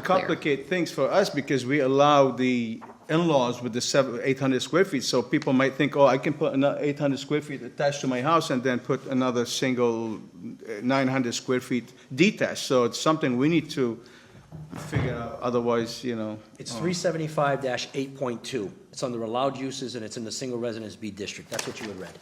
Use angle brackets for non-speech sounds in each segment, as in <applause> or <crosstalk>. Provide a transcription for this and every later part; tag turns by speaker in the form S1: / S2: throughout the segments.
S1: clear.
S2: complicate things for us because we allow the in-laws with the seven, eight hundred square feet, so people might think, oh, I can put another eight hundred square feet attached to my house and then put another single eh, nine hundred square feet detached, so it's something we need to figure out, otherwise, you know.
S3: It's three seventy-five eight point two. It's under allowed uses and it's in the single residence B district. That's what you had read.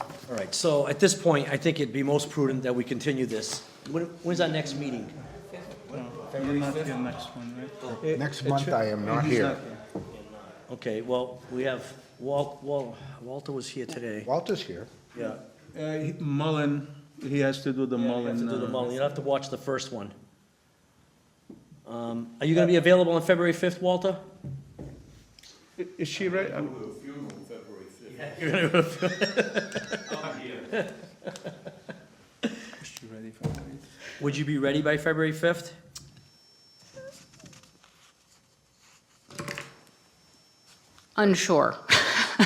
S3: All right, so at this point, I think it'd be most prudent that we continue this. When, when's our next meeting?
S4: Next month, I am not here.
S3: Okay, well, we have Walt, Wal, Walter was here today.
S4: Walter's here.
S3: Yeah.
S2: Uh, Mullen, he has to do the
S3: You have
S2: Mullen.
S3: to do the
S2: uh,
S3: Mullen. You'll have to watch the first one. Um, are you gonna be available on February fifth, Walter?
S2: i- Is she right? I'm- Is she ready for that?
S3: Would you be ready by February fifth?
S1: Unsure. <laughs>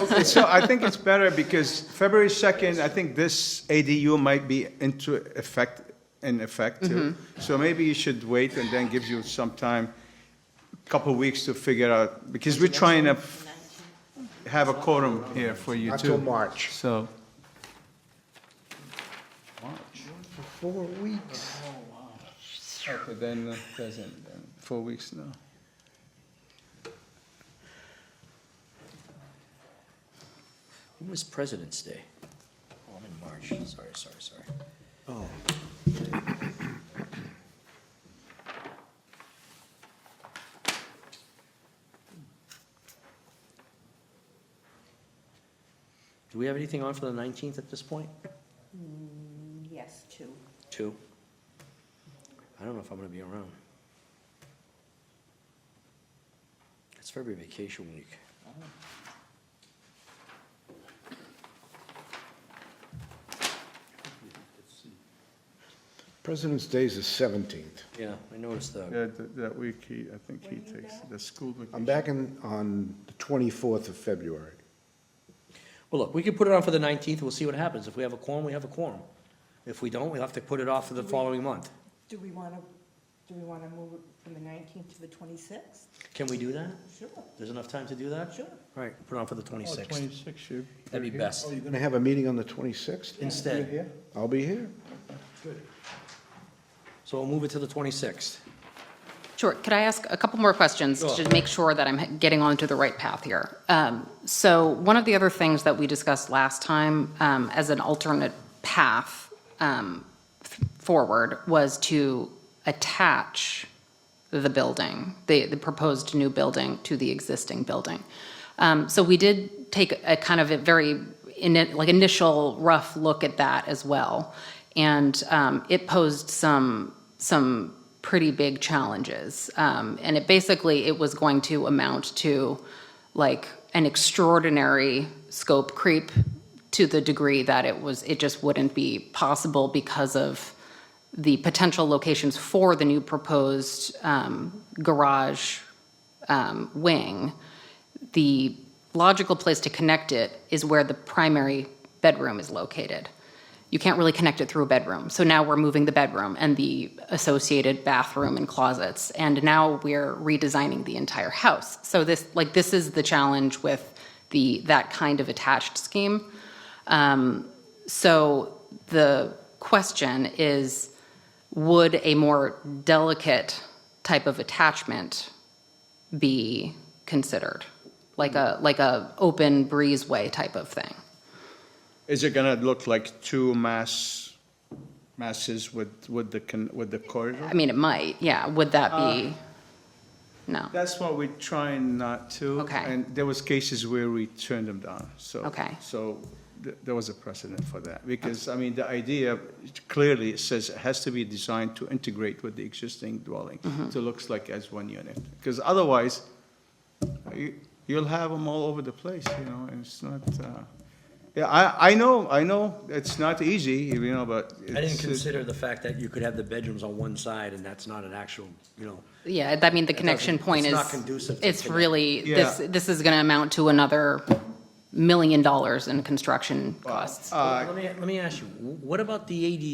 S2: Okay, so I think it's better because February second, I think this ADU might be into effect, in effect too. So maybe you should wait and then gives you some time, couple weeks to figure out, because we're trying to have a quorum here for you
S4: Not
S2: too.
S4: till March.
S2: So,
S4: Four weeks.
S2: okay, then, uh, doesn't, then four weeks now.
S3: When was President's Day? Oh, I'm in March, sorry, sorry, sorry. Do we have anything on for the nineteenth at this point?
S5: Mm, Yes, two.
S3: Two? I don't know if I'm gonna be around. It's February vacation week.
S4: President's Day is the 17th.
S3: Yeah, I noticed that.
S2: Yeah, th- that week, he, I think he takes the school vacation.
S4: I'm back in, on the 24th of February.
S3: Well, look, we could put it on for the 19th, we'll see what happens. If we have a quorum, we have a quorum. If we don't, we'll have to put it off for the following month.
S5: Do we want to, do we want to move it from the 19th to the 26th?
S3: Can we do that?
S5: Sure.
S3: There's enough time to do that?
S5: Sure.
S3: All right, put it on for the 26th.
S2: Oh, Twenty-six, you.
S3: That'd be
S4: Oh,
S3: best.
S4: you're going to have a meeting on the 26th?
S3: Instead,
S4: I'll be here.
S3: so we'll move it to the 26th.
S1: Sure, could I ask a couple more questions
S3: Sure.
S1: to make sure that I'm getting onto the right path here? Um, So one of the other things that we discussed last time um, as an alternate path um, f- forward was to attach the building, the, the proposed new building to the existing building. Um, So we did take a kind of a very, ini- like initial rough look at that as well. And um, it posed some, some pretty big challenges. Um, And it basically, it was going to amount to like an extraordinary scope creep to the degree that it was, it just wouldn't be possible because of the potential locations for the new proposed um, garage um, wing, the logical place to connect it is where the primary bedroom is located. You can't really connect it through a bedroom. So now we're moving the bedroom and the associated bathroom and closets. And now we're redesigning the entire house. So this, like, this is the challenge with the, that kind of attached scheme. Um, so the question is, would a more delicate type of attachment be considered? Like a, like a open breezeway type of thing?
S2: Is it gonna look like two mass, masses with, with the, con- with the corridor?
S1: I mean, it might, yeah, would that
S3: Uh,
S1: be? No,
S2: That's what we're trying not to.
S1: Okay.
S2: And there was cases where we turned them down, so.
S1: Okay.
S2: So th- there was a precedent for that, because, I mean, the idea clearly it says it has to be designed to integrate with the existing dwelling.
S1: Mm-hmm.
S2: So it looks like as one unit, because otherwise, you- you'll have them all over the place, you know, and it's not, uh, yeah, I, I know, I know, it's not easy, you know, but.
S3: I didn't
S2: it's-
S3: consider the fact that you could have the bedrooms on one side and that's not an actual, you know,
S1: yeah, I mean, the connection
S3: doesn't-
S1: point is.
S3: it's not conducive to
S1: It's
S3: connect.
S1: really, this,
S2: Yeah.
S1: this is gonna amount to another million dollars in construction costs.
S2: Uh,
S3: Let me, let me ask you, what about the ADU?